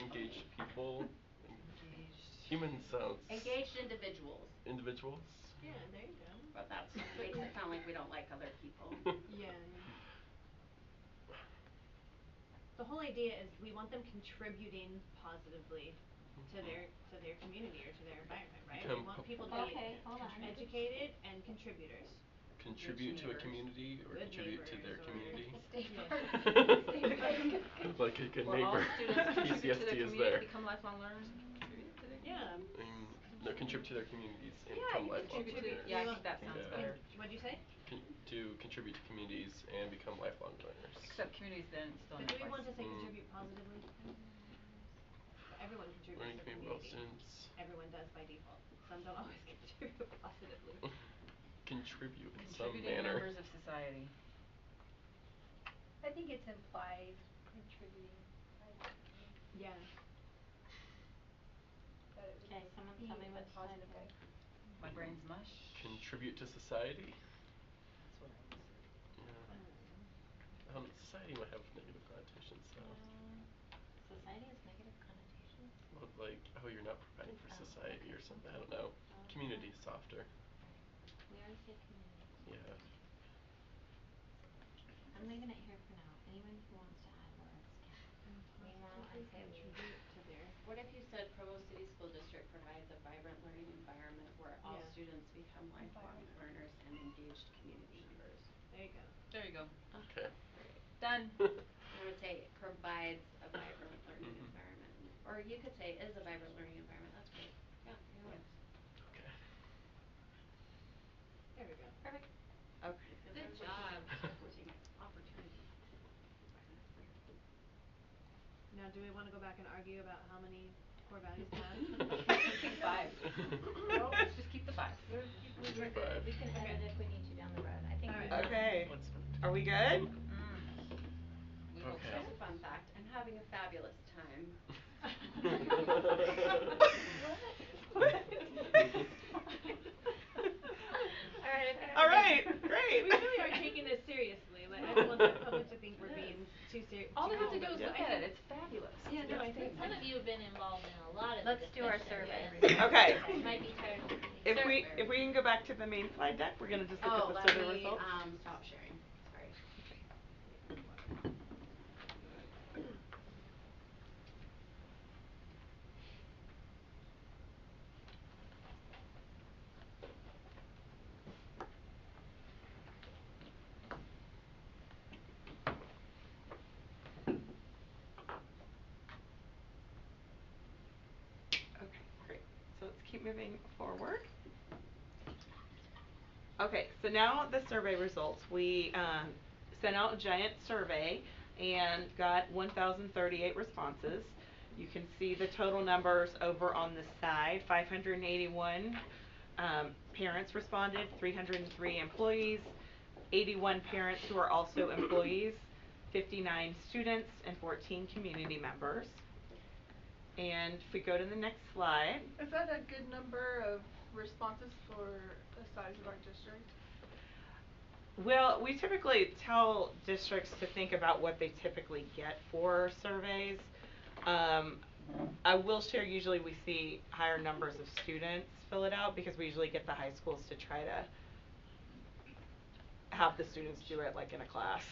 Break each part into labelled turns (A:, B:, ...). A: engaged people, human sounds.
B: Engaged individuals.
A: Individuals.
C: Yeah, there you go.
B: Well, that's what makes it sound like we don't like other
D: Oh.
B: people.
C: Yeah. The whole idea is we want them contributing positively to their to their community or to their environment, right?
A: Become
C: We want
A: pub-
C: people to be
E: Okay, hold on.
C: educated and contributors.
A: Contribute to a
B: neighbors.
A: community or
C: Good
A: contribute to their
C: neighbors or-
A: community.
E: Stay
C: Yeah.
E: far. Stay away.
A: Like a good
D: Well, all
A: neighbor.
D: students contribute to their
A: PCSD is
D: community,
A: there.
D: become lifelong learners, and contribute to their community.
A: I
C: Yeah.
A: mean, no, contribute to their communities and
D: Yeah,
A: become
D: you
A: lifelong
D: contribute to-
A: learners.
D: yeah, I
C: You
D: think that
A: want-
D: sounds
A: Yeah.
D: better.
C: What'd you say?
A: Con- to contribute to communities and become lifelong learners.
D: Except communities then it's still
C: But
D: in
C: do
D: that
C: we want to say
A: Mm.
C: contribute positively? Everyone contributes
A: learning
C: to
A: community about
C: community.
A: students
C: Everyone does by default. Some don't always contribute positively.
A: contribute in some
D: Contributing
A: manner.
D: members of society.
E: I think it's implied contributing. like,
C: Yeah.
E: that it would
F: Okay, someone
E: be
F: tell
E: in
F: me
E: a
F: what slide
E: positive
F: it
E: way.
D: My brain's mush.
A: Contribute to society.
D: That's what
A: Oh.
D: I was.
A: Yeah. Um, society might have negative connotations, so
F: Society has negative connotations.
A: well, like, oh, you're not providing for
F: Oh,
A: society or
F: okay.
A: something. I don't know.
F: Oh,
A: Community is
F: okay.
A: softer.
F: We already said community.
A: Yeah.
F: I'm leaving it here for now. Anyone who wants to add words can. Meanwhile, I say we.
C: Contribute to their
B: Um, What if you said Provo City School District provides a vibrant learning environment where all
C: Yeah.
B: students become lifelong
E: Environment.
B: learners and engaged community members?
C: There you go.
D: There you go.
A: Okay.
D: Done.
B: I would say it provides a vibrant learning
A: Mhm.
B: environment, or you could say is a vibrant learning environment, that's great, yeah, either way.
A: okay.
C: There we go.
B: Perfect.
D: Okay.
B: Good job. Opportunity.
C: Now, do we wanna go back and argue about how many core values to have?
D: Five.
C: Nope.
D: Let's just keep the five.
F: We were
A: Five.
F: good. We can edit if we need to down the road. I think we
C: Alright.
F: will.
D: Okay.
A: What's
D: Are we good? We hope
A: Okay.
D: so.
B: Here's a fun fact, I'm having a fabulous time.
C: Alright,
D: All right,
C: We
D: great.
C: really are taking this seriously, like I don't want the public to think we're
B: Yes.
C: being too serious.
D: All they have to do is look at it, it's fabulous.
C: Yeah, no, I think.
F: Some of you have been involved in a lot of the
B: Let's
F: discussion.
B: do our survey.
F: and
G: Okay.
F: You might be tired of listening.
G: If
B: Sure.
G: we, if we can go back to the main slide deck, we're gonna just look at the survey results.
B: Oh, let me, um, stop sharing, sorry.
G: Okay, great. So let's keep moving forward. Okay, so now the survey results. We um, sent out a giant survey and got 1,038 responses. You can see the total numbers over on the side. 581 um, parents responded, 303 employees, 81 parents who are also employees, 59 students, and 14 community members. And if we go to the next slide,
H: Is that a good number of responses for the size of our district?
G: well, we typically tell districts to think about what they typically get for surveys. Um, I will share, usually we see higher numbers of students fill it out because we usually get the high schools to try to have the students do it like in a class.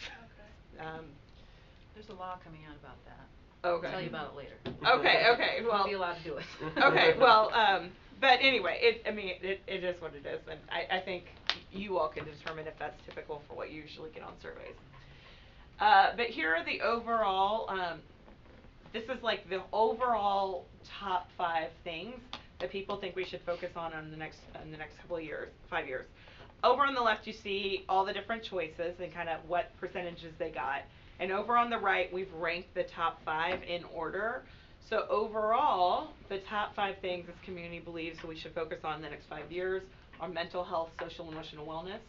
G: Um,
D: There's a law coming out about that.
G: okay.
D: I'll tell you about it later.
G: Okay, okay,
D: We'll
G: well.
D: be allowed to do it.
G: okay, well, um, but anyway, it, I mean, it, it is what it is, and I, I think you all can determine if that's typical for what you usually get on surveys. Uh, but here are the overall, um, this is like the overall top five things that people think we should focus on on the next, in the next couple of years, five years. Over on the left, you see all the different choices and kind of what percentages they got. And over on the right, we've ranked the top five in order. So overall, the top five things this community believes we should focus on in the next five years are mental health, social and emotional wellness,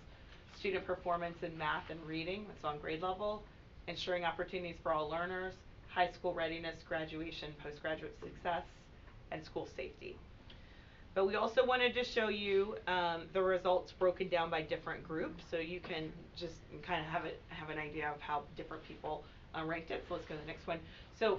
G: student performance in math and reading, that's on grade level, ensuring opportunities for all learners, high school readiness, graduation, postgraduate success, and school safety. But we also wanted to show you um, the results broken down by different groups, so you can just kind of have it have an idea of how different people uh, ranked it. So let's go to the next one. So